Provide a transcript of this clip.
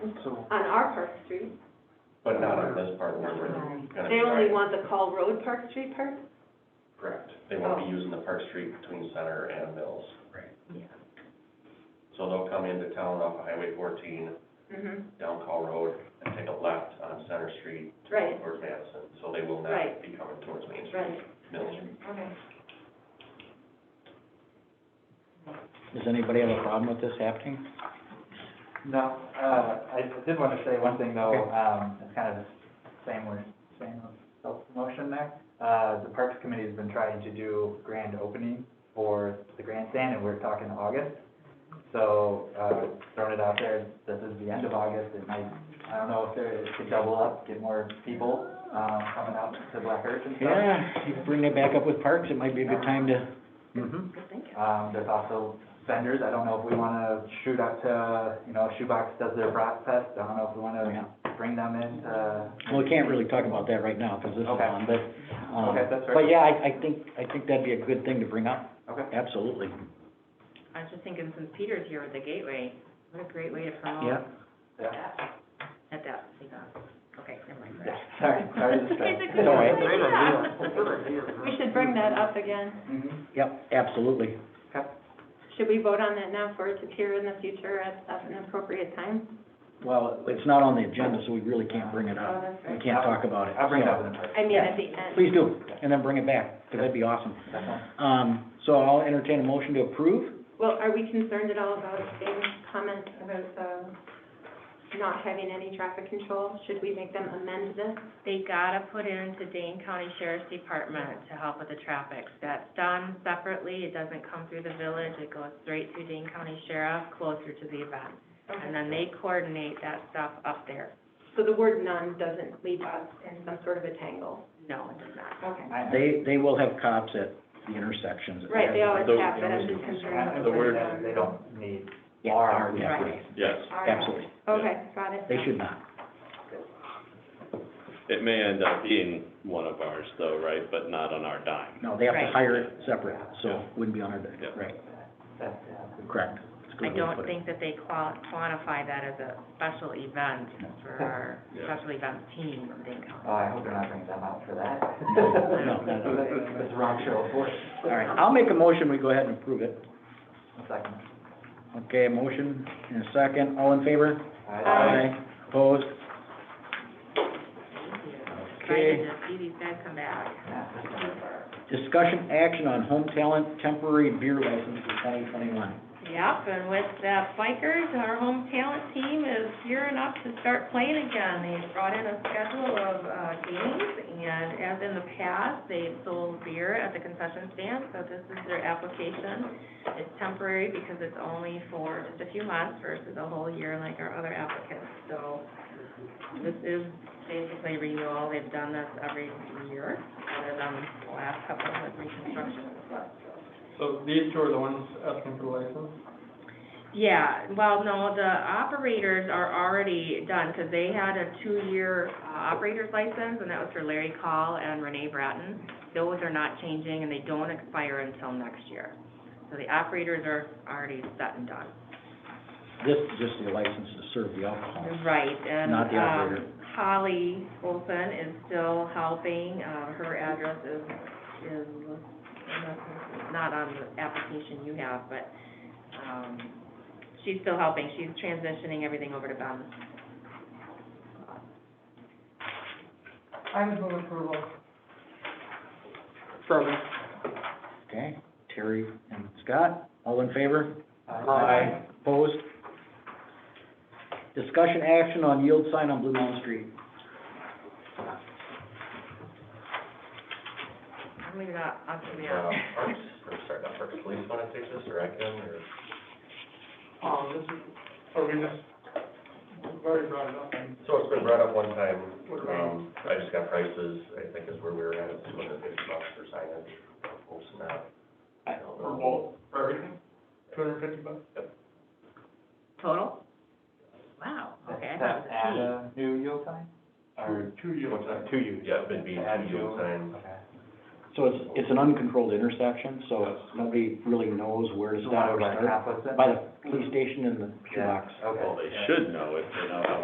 on our Park Street. but not on this part where we're gonna be They only driving. want the Call Road Park Street part? Correct, they won't be Oh. using the Park Street between Center and Mills. Yeah. So they'll come into town off of Highway fourteen, Mm-hmm, down Call Road, and take a left on Center Street to go Right. towards Madison. So they will Right. not be coming towards Main Street, right, Mills. okay. Does anybody have a problem with this happening? No, uh, I did want to say one thing though, um, it's kind of the same with, same with self-promotion there. Uh, the Parks Committee has been trying to do grand opening for the grandstand and we're talking August. So, uh, throwing it out there, this is the end of August, it might, I don't know if there, it could double up, get more people, um, coming out to Black Earth and stuff. Yeah, you bring it back up with parks, it might be a good time to, Good thinking. Um, there's also vendors, I don't know if we wanna shoot up to, you know, Shoebox does their brat fest, I don't know if we wanna uh, yeah. bring them in to. Well, we can't really talk about that right now, because this is Okay. on, but, um, Okay, that's fair. but yeah, I, I think, I think that'd be a good thing to bring up, Okay. absolutely. I was just thinking, since Peter's here with the Gateway, what a great way to Yeah. promote Yeah, at that, okay, never mind. Yeah, sorry, sorry to distract. It's a good Sorry. We should bring that up again. Mhm. Yep, absolutely. Okay. Should we vote on that now for it to appear in the future at, at an appropriate time? Well, it's not on the agenda, so we really can't bring it Oh, up. that's We right. can't talk about it. I'll bring it up in a minute. I mean, at the end. Please do, and then bring it back, because that'd be awesome. That's fine. Um, so I'll entertain a motion to approve. Well, are we concerned at all about Dave's comment about, um, not having any traffic control? Should we make them amend this? They gotta put into Dane County Sheriff's Department to help with the traffic. That's done separately, it doesn't come through the village, it goes straight to Dane County Sheriff, closer to the event. And then they coordinate that stuff up there. So the word none doesn't leave us in some sort of a tangle? No, it does not. Okay. I- I- They, they will have cops at the intersections. Right, they always Those- have, but I'm just concerned I- about. The word, um, they don't need. Yeah, Are, yeah, right. Yes, all right. Absolutely, Okay, got it. they should not. it may end up being one of ours though, right, but not on our dime. No, they have to Right. hire it separate, so wouldn't be on our, deck. Yeah. right, That's, yeah. correct. It's a good I way to don't put it. think that they qual- quantify that as a special event for our Yeah. special events team from Dane County. Oh, I hope they're not bringing them out for that. No, no, no. It's wrong show for it. All right, I'll make a motion, we go ahead and approve it. One second. Okay, a motion and a second, all in favor? All right. Opposed? Excited Okay. to see these guys come back. Discussion action on home talent temporary beer license for twenty twenty-one. Yep, and with the bikers, our home talent team is gearing up to start playing again. They've brought in a schedule of, uh, games, and as in the past, they've sold beer at the concession stand, so this is their application. It's temporary because it's only for just a few months versus a whole year like our other applicants, so this is basically renewal. They've done this every year, other than the last couple with reconstruction and stuff, so. So these two are the ones asking for the license? Yeah, well, no, the operators are already done, because they had a two-year uh, operator's license, and that was for Larry Call and Renee Bratton. Those are not changing, and they don't expire until next year. So the operators are already set and done. This is just the license to serve the alcohol. Right, and, Not the operator. um, Holly Olson is still helping, uh, her address is, is, not on the application you have, but, um, she's still helping, she's transitioning everything over to Ben. I would move approval. Second. Okay, Terry and Scott, all in favor? Aye. Opposed? Discussion action on yield sign on Blue Mountain Street. I'm leaving out, I'll leave it Uh, out. Parks, or sorry, not Parks, Police wanna take this, or Ecam, or? Um, this is, are we just, we've already brought it up, and So it's been brought up one time, What about- um, I just got prices, I think is where we were at, it's two hundred fifty bucks for signage, folks not. I don't for know. both, for everything, two hundred and fifty bucks? Total? Wow, okay, I thought That add it was a new yield sign? Or, Two years. or two yield? Yeah, it'd be Add two yield signs. Okay. So it's, it's an uncontrolled intersection, so nobody really knows where to So stop or what, start. half of it? By the police station and the Yeah, shoebox. okay. Well, they should know if they know how